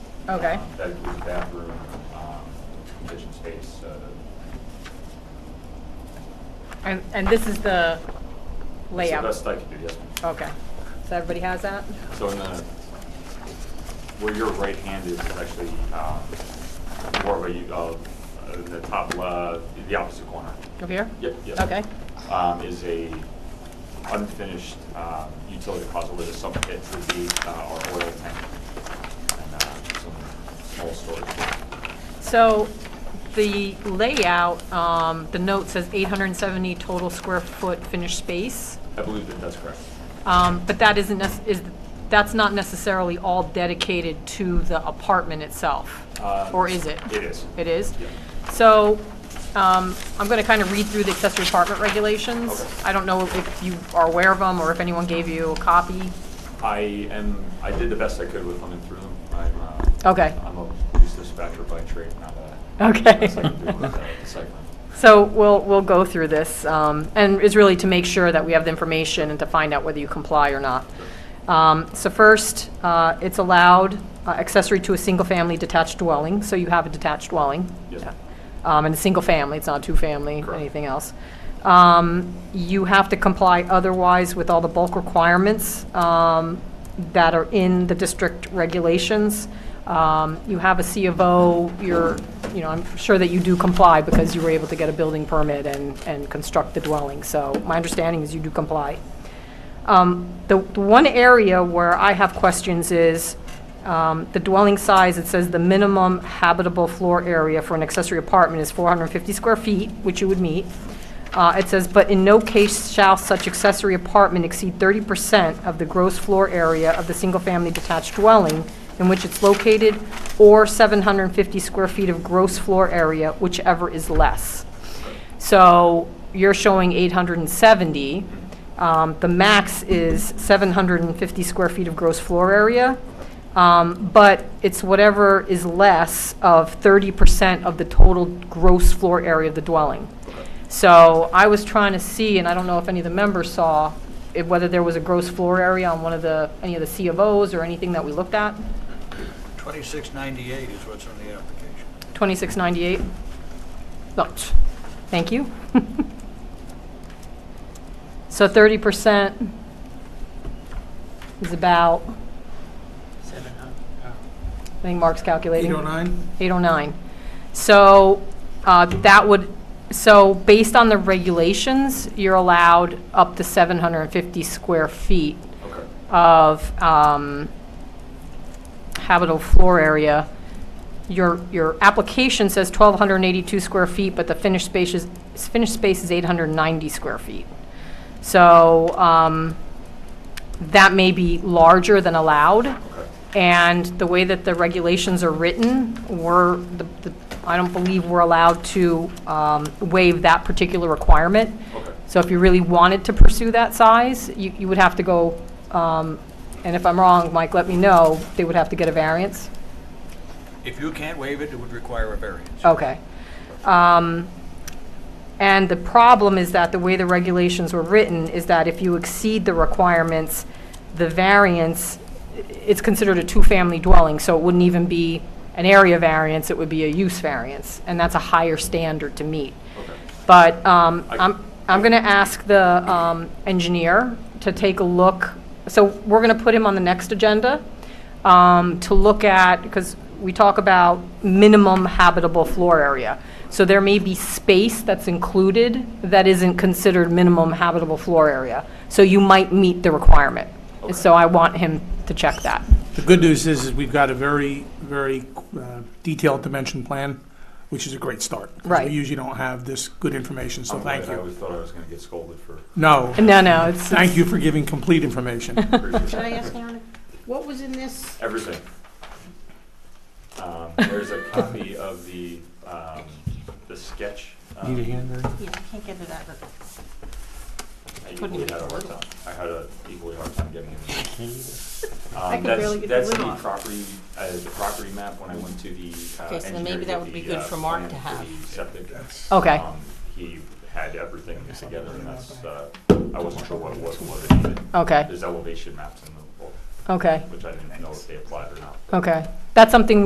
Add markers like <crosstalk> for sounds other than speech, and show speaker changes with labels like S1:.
S1: Okay.
S2: Um, That includes a bathroom, um, kitchen space, uh,
S1: And, and this is the layout?
S2: That's the best I can do, yes. ma'am.
S1: Okay. So everybody has that?
S2: So in the, where your right hand is, is actually um, more of a, u- uh, in the top, uh, the opposite corner.
S1: Over here?
S2: Yep, yep.
S1: Okay.
S2: Um, Is a unfinished um, utility closet where the sump pit would be uh, our oil tank and uh, some small storage.
S1: So the layout, um, the note says 870 total square foot finished space,
S2: I believe that that's correct.
S1: Um, but that isn't, nec- is, that's not necessarily all dedicated to the apartment itself?
S2: Uh,
S1: Or is it?
S2: It is.
S1: It is?
S2: Yeah.
S1: So um, I'm going to kind of read through the accessory apartment regulations.
S2: Okay.
S1: I don't know if you are aware of them or if anyone gave you a copy.
S2: I am, I did the best I could with them and through them. I'm, uh,
S1: Okay.
S2: I'm a police dispatcher by trade, not a.
S1: Okay.
S2: best I can do
S1: <laughs>
S2: with, uh, the segment.
S1: So we'll, we'll go through this, um, and it's really to make sure that we have the information and to find out whether you comply or not. Um, So first, uh, it's allowed uh, accessory to a single-family detached dwelling, so you have a detached dwelling.
S2: Yes.
S1: Um, And a single family, it's not a two-family,
S2: Correct.
S1: anything else. Um, You have to comply otherwise with all the bulk requirements um, that are in the district regulations. Um, You have a C of O, you're, you know, I'm sure that you do comply because you were able to get a building permit and, and construct the dwelling. So my understanding is you do comply. Um, The the one area where I have questions is um, the dwelling size, it says the minimum habitable floor area for an accessory apartment is 450 square feet, which you would meet. Uh, It says, "But in no case shall such accessory apartment exceed 30% of the gross floor area of the single-family detached dwelling in which it's located, or 750 square feet of gross floor area, whichever is less." So you're showing 870. Um, The max is 750 square feet of gross floor area, Um, but it's whatever is less of 30% of the total gross floor area of the dwelling. So I was trying to see, and I don't know if any of the members saw, if- whether there was a gross floor area on one of the, any of the C of Os or anything that we looked at,
S3: 2698 is what's on the application.
S1: 2698. No, Thank you. <laughs> So 30% is about, I think Mark's calculating.
S4: 809?
S1: 809. So uh, that would, so based on the regulations, you're allowed up to 750 square feet
S2: Okay.
S1: of um, habitable floor area. Your, your application says 1,282 square feet, but the finished space is, finished space is 890 square feet. So um, that may be larger than allowed.
S2: Okay.
S1: And the way that the regulations are written, we're, the- the- I don't believe we're allowed to um, waive that particular requirement.
S2: Okay.
S1: So if you really wanted to pursue that size, you you would have to go, um, and if I'm wrong, Mike, let me know, they would have to get a variance?
S3: If you can't waive it, it would require a variance.
S1: Okay. Um, And the problem is that the way the regulations were written is that if you exceed the requirements, the variance, i- it's considered a two-family dwelling, so it wouldn't even be an area variance, it would be a use variance, and that's a higher standard to meet.
S2: Okay.
S1: But um,
S2: I-
S1: I'm, I'm going to ask the um, engineer to take a look. So we're going to put him on the next agenda um, to look at, because we talk about minimum habitable floor area. So there may be space that's included that isn't considered minimum habitable floor area. So you might meet the requirement. And So I want him to check that.
S4: The good news is, is we've got a very, very uh, detailed dimension plan, which is a great start. 'cause
S1: Right.
S4: We usually don't have this good information, so
S2: I'm
S4: thank
S2: glad. I
S4: you.
S2: always thought I was going to get scolded for. <laughs>
S4: No,
S1: No, no, it's.
S4: thank you for giving complete information.
S2: Can
S5: Can I ask Aaron, what was in this?
S2: Everything. Um, There's a copy of the, um, the sketch. um,
S4: Need a hand there?
S5: Yeah, I can't get to that, but
S2: I equally had a hard time. I had a equally hard time getting it.
S5: <laughs> I
S2: Um,
S5: could
S2: that's,
S5: barely get the
S2: that's
S5: lid
S2: the
S5: off.
S2: property, uh, the property map when I went to the, uh,
S5: Okay, so then maybe
S2: engineer to
S5: that would
S2: get
S5: be
S2: the,
S5: good
S2: uh,
S5: for Mark
S2: plan
S5: to
S2: for
S5: have.
S2: the septic.
S1: Okay.
S2: Um, He had everything together and that's, uh, I wasn't sure what, what, what it needed.
S1: Okay,
S2: There's elevation maps in the book,
S1: okay,
S2: which I didn't know if they applied or not.
S1: okay. That's something